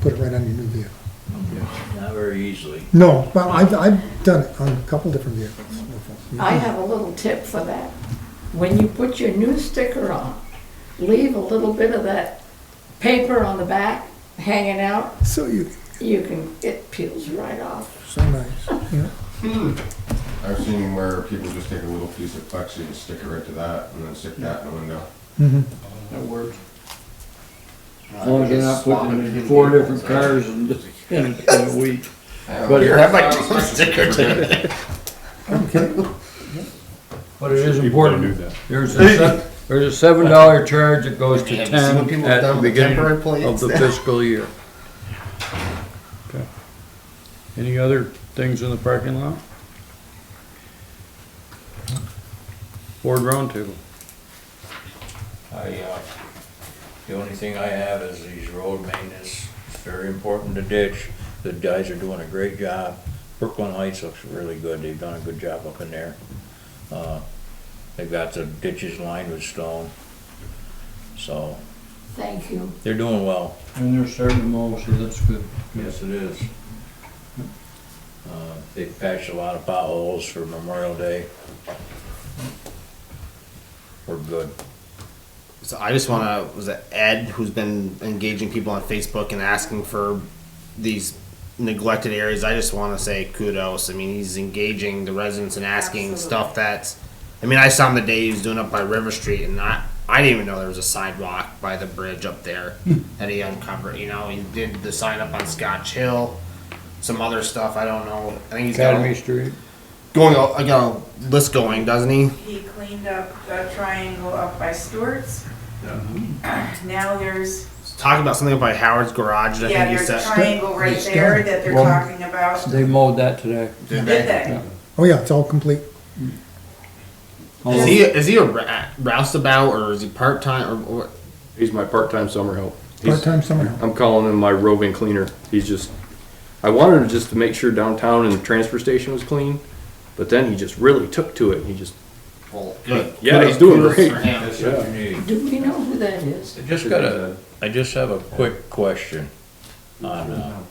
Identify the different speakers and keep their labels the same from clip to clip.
Speaker 1: put it right on your new vehicle.
Speaker 2: Not very easily.
Speaker 1: No, well, I've, I've done it on a couple different vehicles.
Speaker 3: I have a little tip for that. When you put your new sticker on, leave a little bit of that paper on the back hanging out.
Speaker 1: So you,
Speaker 3: You can, it peels right off.
Speaker 1: so nice, yeah.
Speaker 4: I've seen where people just take a little piece of plexi and stick it right to that, and then stick that in the window.
Speaker 1: Mhm.
Speaker 5: That works.
Speaker 6: As long as they're not putting them in four different cars in, in a week. But it-
Speaker 2: uh,
Speaker 6: But it is important, there's a, se- there's a seven dollar charge that goes to
Speaker 7: Have you seen what
Speaker 6: town
Speaker 7: people have
Speaker 6: at
Speaker 7: done
Speaker 6: the
Speaker 7: with
Speaker 6: beginning
Speaker 7: temporary plans?
Speaker 6: of the fiscal year. Okay. Any other things in the parking lot? Board roundtable.
Speaker 2: I, uh, the only thing I have is these road maintenance, it's very important to ditch. The guys are doing a great job. Brooklyn Heights looks really good, they've done a good job up in there. Uh, They've got the ditches lined with stone. So,
Speaker 3: Thank you.
Speaker 2: they're doing well.
Speaker 6: And they're starting to mow, so that's good.
Speaker 2: Yes, it is. Uh, They patched a lot of potholes for Memorial Day. We're good.
Speaker 7: So I just want to was it Ed who's been engaging people on Facebook and asking for these neglected areas. I just want to say kudos. I mean, he's engaging the residents and asking stuff that's. I mean, I saw him the day he was doing up by River Street, and I I didn't even know there was a sidewalk by the bridge up there that he uncovered. You know, he did the sign up on Scotch Hill, some other stuff. I don't know. I think he's got
Speaker 6: Academy
Speaker 7: a,
Speaker 6: Street.
Speaker 7: going. a- I got a list going, doesn't he?
Speaker 8: He cleaned up the triangle up by Stewart's. Now there's,
Speaker 7: Talking about something about Howard's Garage. that I
Speaker 8: yeah,
Speaker 7: think he
Speaker 8: there's a
Speaker 7: said.
Speaker 8: triangle right
Speaker 1: It's
Speaker 8: there
Speaker 1: done.
Speaker 8: that they're
Speaker 6: Well-
Speaker 8: talking about.
Speaker 6: They mowed that today.
Speaker 8: Did they?
Speaker 6: Yeah.
Speaker 1: Oh, yeah, it's all complete.
Speaker 7: Is he is he a ra- roustabout or is he part time or, or
Speaker 9: He's my part-time summer help. He's-
Speaker 1: Part-time summer help.
Speaker 9: I'm calling him my roving cleaner. He's just, I wanted him just to make sure downtown and the transfer station was clean, but then he just really took to it. He just,
Speaker 7: well, good?
Speaker 9: yeah, he's doing
Speaker 7: Kudos
Speaker 9: great.
Speaker 7: for him.
Speaker 2: That's what you need.
Speaker 3: Do we know who that is?
Speaker 2: I just got a, I just have a quick question on, uh,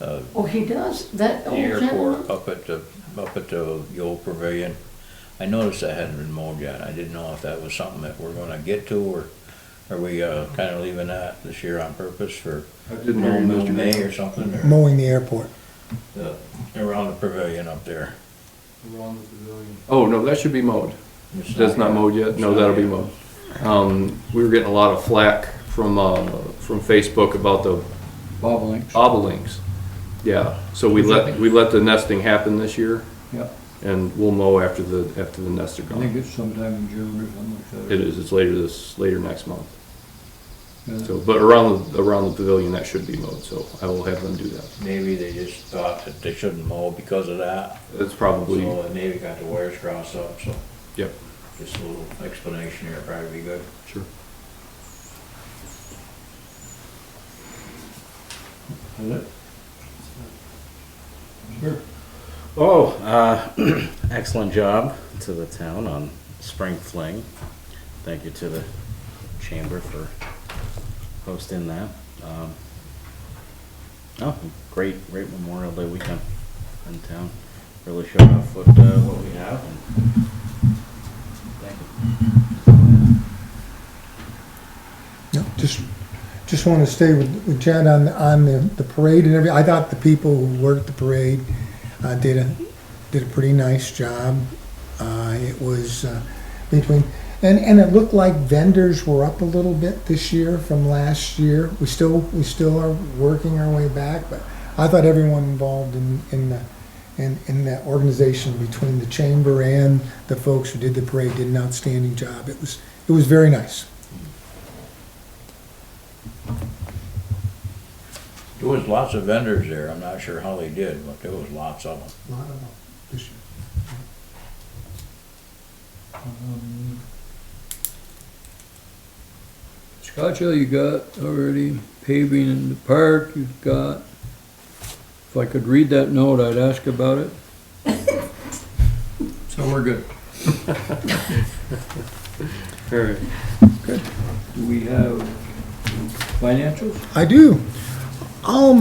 Speaker 2: uh,
Speaker 3: Oh, he does? That
Speaker 2: the
Speaker 3: old gentleman?
Speaker 2: airport up at the, up at the the old pavilion. I noticed that hadn't been mowed yet. I didn't know if that was something that we're gonna get to, or are we, uh, kinda leaving that this year on purpose for
Speaker 9: I didn't know
Speaker 2: middle of
Speaker 9: Mr.
Speaker 2: May or something, or
Speaker 1: Mowing the airport.
Speaker 2: the- around the pavilion up there?
Speaker 9: Oh, no, that should be mowed.
Speaker 2: It's
Speaker 9: That's not mowed yet? No, that'll be
Speaker 2: yet.
Speaker 9: mowed. Um, we were getting a lot of flack from, uh, from Facebook about the
Speaker 6: Bob Links.
Speaker 9: obelinks. Yeah, so we let, we let the nesting happen this year
Speaker 6: Yep.
Speaker 9: and we'll mow after the, after the nests are
Speaker 6: I think
Speaker 9: gone.
Speaker 6: it's sometime in June or something like that.
Speaker 9: It is, it's later this, later next month.
Speaker 6: Yeah.
Speaker 9: So, but around, the around the pavilion, that should be mowed, so I will have them do that.
Speaker 2: Maybe they just thought that they shouldn't mow because of that,
Speaker 9: That's probably,
Speaker 2: so and maybe got the wires crossed up, so
Speaker 9: yep,
Speaker 2: just a little explanation here probably be good.
Speaker 9: sure.
Speaker 6: Is it?
Speaker 10: Oh, uh, excellent job to the town on Spring Fling. Thank you to the chamber for hosting that. Um, oh, great, great Memorial Day weekend in town. Really showed off what, uh, what we have. And thank you.
Speaker 1: No, just, just want to stay with with Jen on, on the the parade and everything. I thought the people who worked the parade uh, did a, did a pretty nice job. Uh, It was uh, between, and, and it looked like vendors were up a little bit this year from last year. We still, we still are working our way back, but I thought everyone involved in, in the, in, in that organization between the chamber and the folks who did the parade did an outstanding job. It was, it was very nice.
Speaker 2: There was lots of vendors there, I'm not sure how they did, but there was lots of them.
Speaker 1: Lot of them this year.
Speaker 6: Um, Scotch Hill you got already, paving in the park you've got. If I could read that note, I'd ask about it. So we're good.
Speaker 9: All right.
Speaker 6: Do we have financials?
Speaker 1: I do. I'll